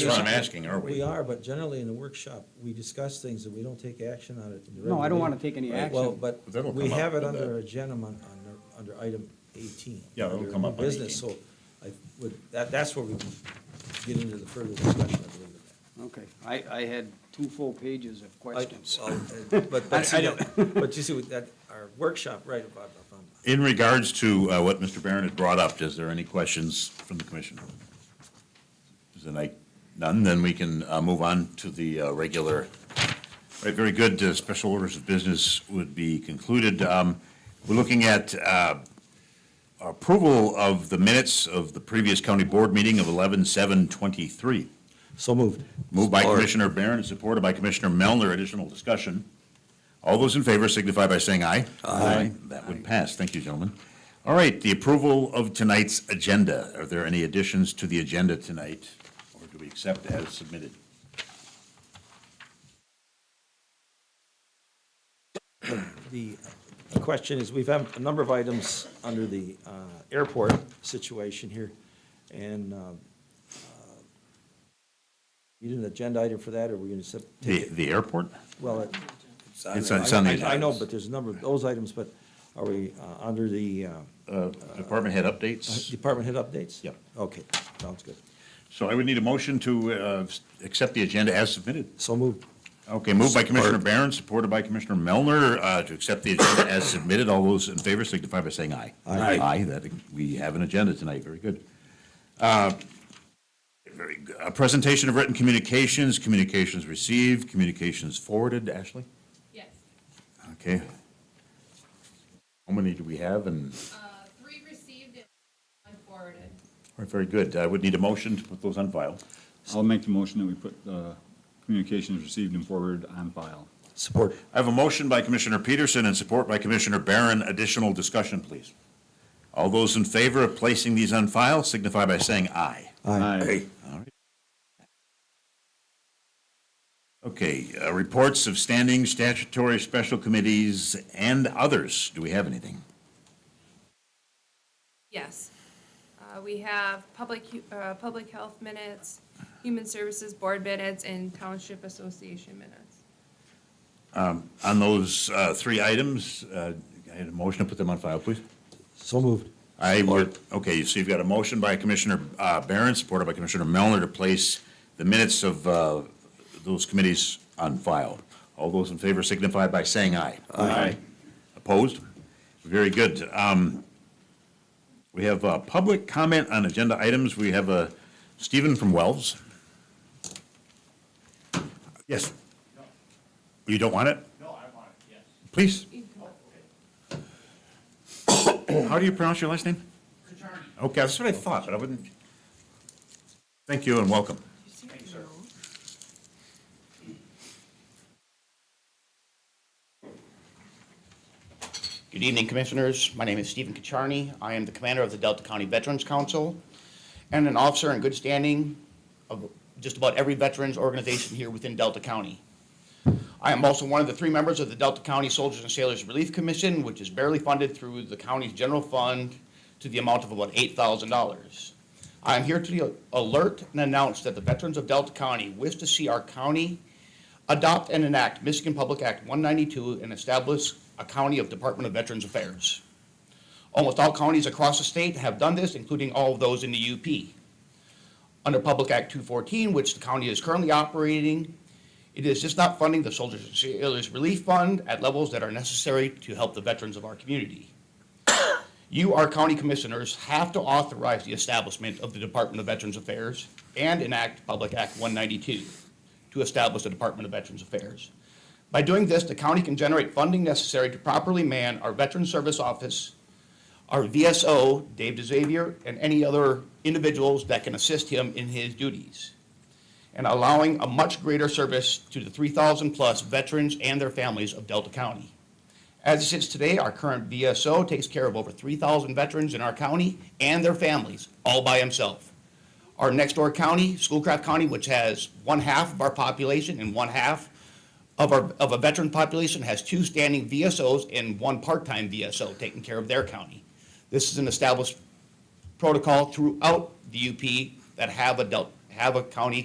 That's what I'm asking, are we? We are, but generally in the workshop, we discuss things and we don't take action on it. in the No, I regular don't wanna meeting. take any Right. Well, action. but But that'll we come up have it with under that. agenda on, on, under item eighteen. Yeah, that'll under come new up on Business, 18. so I would, that, that's where we can get into the further discussion, I believe. of that. Okay, I, I had two full pages of questions. I- well, uh, But, but, I- I see that- but you see, with that, our workshop, right, about, about, In regards to uh, what Mr. Barron had brought up, is there any questions from the commission? Is there like none, then we can uh, move on to the uh, regular. All right, very good. Uh, Special orders of business would be concluded. Um, We're looking at uh, approval of the minutes of the previous county board meeting of 11/7/23. so moved. Moved by Support. Commissioner Barron and supported by Commissioner Melner. Additional discussion. All those in favor signify by saying aye. Aye. That would pass. Thank you, gentlemen. All right, the approval of tonight's agenda. Are there any additions to the agenda tonight, or do we accept as submitted? The the question is, we've had a number of items under the uh, airport situation here, and um, uh, you need an agenda item for that, or we're going to The, take it? the airport? Well, it- It's on- it's on the I- I I know, agenda. but there's a number of those items, but are we uh, under the uh, Uh, Department head updates? department head updates? Yep. Okay, sounds good. So I would need a motion to uh, s- accept the agenda as submitted. So moved. Okay, moved by Commissioner Barron, supported by Commissioner Melner, uh, to accept the agenda as submitted. All those in favor signify by saying aye. Aye. Aye, that, we have an agenda tonight, very good. Uh, Very good. A presentation of written communications, communications received, communications forwarded, Ashley? Yes, Okay. How many do we have? And, uh, three received and one forwarded. all right, very good. I would need a motion to put those on file. I'll make the motion that we put uh, communications received and forwarded on file. Support. I have a motion by Commissioner Peterson and support by Commissioner Barron. Additional discussion, please. All those in favor of placing these on file signify by saying aye. Aye. All right. Okay, uh, reports of standing statutory special committees and others. Do we have anything? Yes. Uh, We have public, hu- uh, public health minutes, human services board minutes, and township association minutes. On those uh, three items, uh, I had a motion to put them on file, please. So moved. I would, okay, so you've got a motion by Commissioner uh, Barron, supported by Commissioner Melner, to place the minutes of uh, those committees on file. All those in favor signify by saying aye. Aye. Opposed? Very good. Um, We have uh, public comment on agenda items. We have uh, Stephen from Wells. Yes. You don't want it? No, I want it, yes. Please. How do you pronounce your last name? Okay, that's what I thought, but I wouldn't. Thank you and welcome. Good evening, Commissioners. My name is Stephen Kacharny. I am the Commander of the Delta County Veterans Council and an officer in good standing of just about every veterans organization here within Delta County. I am also one of the three members of the Delta County Soldiers and Sailors Relief Commission, which is barely funded through the county's general fund to the amount of about eight thousand dollars. I am here to alert and announce that the veterans of Delta County wish to see our county adopt and enact Michigan Public Act 192 and establish a county of Department of Veterans Affairs. Almost all counties across the state have done this, including all of those in the UP. Under Public Act 214, which the county is currently operating, it is just not funding the Soldiers and Sailors Relief Fund at levels that are necessary to help the veterans of our community. You, our county commissioners, have to authorize the establishment of the Department of Veterans Affairs and enact Public Act 192 to establish the Department of Veterans Affairs. By doing this, the county can generate funding necessary to properly man our Veteran Service Office, our VSO, Dave DeXavier, and any other individuals that can assist him in his duties, and allowing a much greater service to the 3,000-plus veterans and their families of Delta County. As it sits today, our current VSO takes care of over 3,000 veterans in our county and their families, all by himself. Our next door county, Schoolcraft County, which has one half of our population and one half of our, of a veteran population, has two standing VSOs and one part-time VSO taking care of their county. This is an established protocol throughout the UP that have adult, have a county